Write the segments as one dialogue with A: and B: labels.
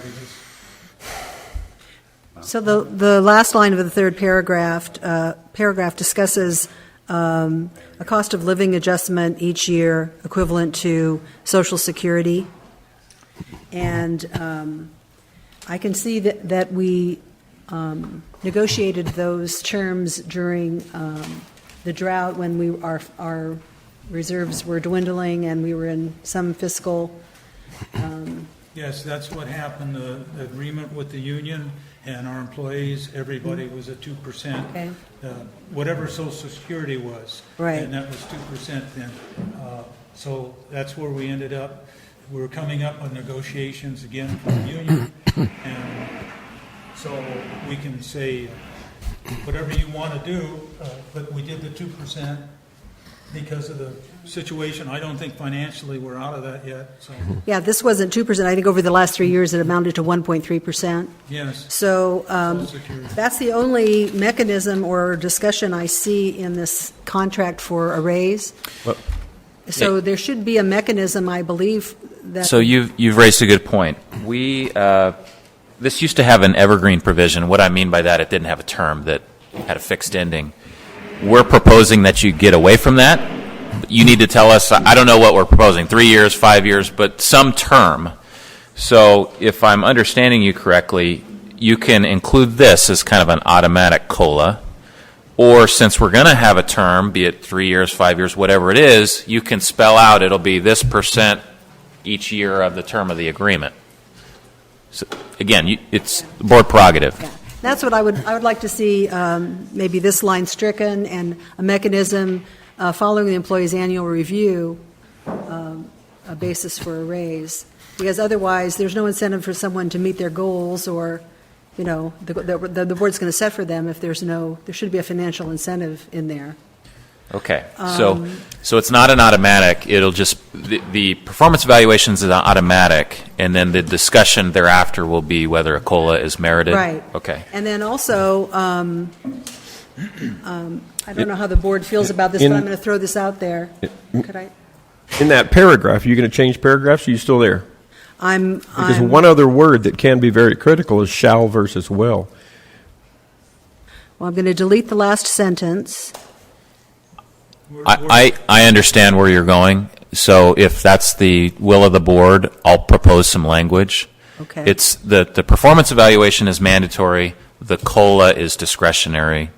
A: pages.
B: So the, the last line of the third paragraph, uh, paragraph discusses um, a cost of living adjustment each year equivalent to social security. And um, I can see that, that we um, negotiated those terms during um, the drought when we, our, our reserves were dwindling and we were in some fiscal,
A: Yes, that's what happened, the the agreement with the union and our employees, everybody was at two percent. Uh,
B: Okay.
A: Whatever social security was.
B: Right.
A: And that was two percent then. Uh, So that's where we ended up. We were coming up on negotiations again for the union. And so we can say whatever you want to do, uh, but we did the two percent because of the situation. I don't think financially we're out of that yet, so,
B: yeah, this wasn't 2%. I think over the last three years, it amounted to 1.3%.
A: yes.
B: So um,
A: Social Security.
B: that's the only mechanism or discussion I see in this contract for a raise.
C: Well-
B: So there should be a mechanism, I believe, that.
C: So you've, you've raised a good point. We, uh, this used to have an evergreen provision. What I mean by that, it didn't have a term that had a fixed ending. We're proposing that you get away from that. You need to tell us, I don't know what we're proposing, three years, five years, but some term. So if I'm understanding you correctly, you can include this as kind of an automatic COLA. Or since we're going to have a term, be it three years, five years, whatever it is, you can spell out it'll be this percent each year of the term of the agreement. So, Again, you- it's board prerogative.
B: That's what I would, I would like to see, um, maybe this line stricken and a mechanism uh, following the employee's annual review, um, a basis for a raise. Because otherwise, there's no incentive for someone to meet their goals or, you know, the, the, the board's going to set for them if there's no, there should be a financial incentive in there.
C: Okay, so, so it's not an automatic, it'll just, the, the performance evaluations is automatic, and then the discussion thereafter will be whether a COLA is merited?
B: Right.
C: Okay.
B: And then also, um, um, I don't know how the board feels about this, but
D: In-
B: I'm going to throw this out there. Could I?
D: In that paragraph, are you going to change paragraphs? Are you still there?
B: I'm,
D: Because
B: I'm,
D: one other word that can be very critical is shall versus will.
B: well, I'm going to delete the last sentence.
A: We're- we're-
C: I, I, I understand where you're going, so if that's the will of the board, I'll propose some language.
B: Okay.
C: It's, the, the performance evaluation is mandatory, the COLA is discretionary,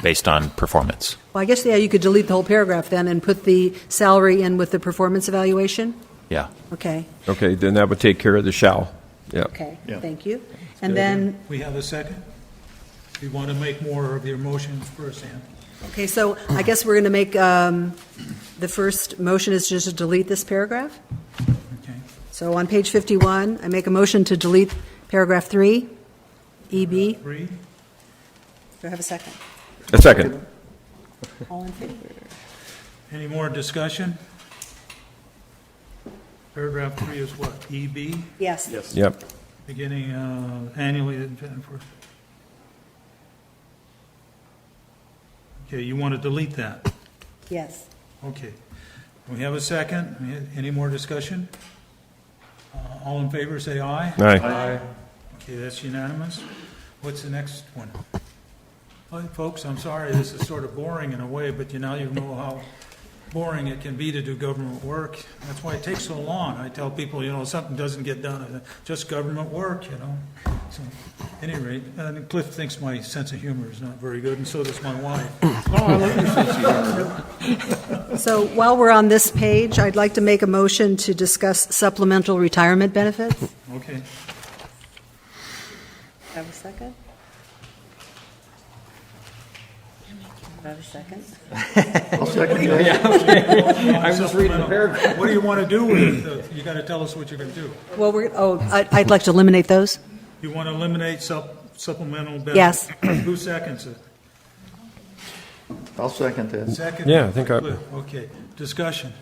C: based on performance.
B: Well, I guess, yeah, you could delete the whole paragraph then and put the salary in with the performance evaluation?
C: Yeah.
B: Okay,
D: Okay, then that would take care of the shall. Yeah.
B: okay, thank you. And then,
A: We have a second? You want to make more of your motions first, Ann?
B: okay, so I guess we're going to make, um, the first motion is just to delete this paragraph?
A: Okay.
B: So on page 51, I make a motion to delete paragraph 3, EB. Do
A: Three?
B: I have a second?
D: A second.
B: All in favor?
A: Any more discussion? Paragraph three is what, EB,
B: Yes.
D: Yep.
A: beginning uh, annually and for... Okay, you want to delete that?
B: Yes.
A: Okay. We have a second? Any more discussion? Uh, All in favor, say aye.
D: All right.
A: Okay, that's unanimous. What's the next one? Well, Folks, I'm sorry, this is sort of boring in a way, but you now you know how boring it can be to do government work. That's why it takes so long. I tell people, you know, something doesn't get done, I say, just government work, you know? So, any rate, and Cliff thinks my sense of humor is not very good, and so does my wife.
B: So while we're on this page, I'd like to make a motion to discuss supplemental retirement benefits. Do
A: Okay,
B: I have a second? Do I have a second?
A: I was just reading the paragraph. What do you want to do with it? Uh, You got to tell us what you're going to do.
B: Well, we're, oh, I- I'd like to eliminate those.
A: You want to eliminate sup- supplemental benefits?
B: Yes.
A: Who seconds it?
E: I'll second that.
A: Second?
D: Yeah, I think I-
A: Okay, discussion.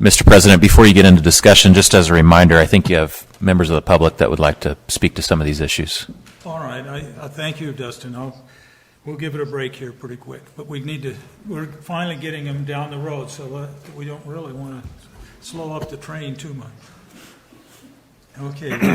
C: Mr. President, before you get into discussion, just as a reminder, I think you have members of the public that would like to speak to some of these issues.
A: All right, I, I thank you, Dustin. I'll, we'll give it a break here pretty quick, but we need to, we're finally getting them down the road, so let- we don't really want to slow up the train too much. Okay,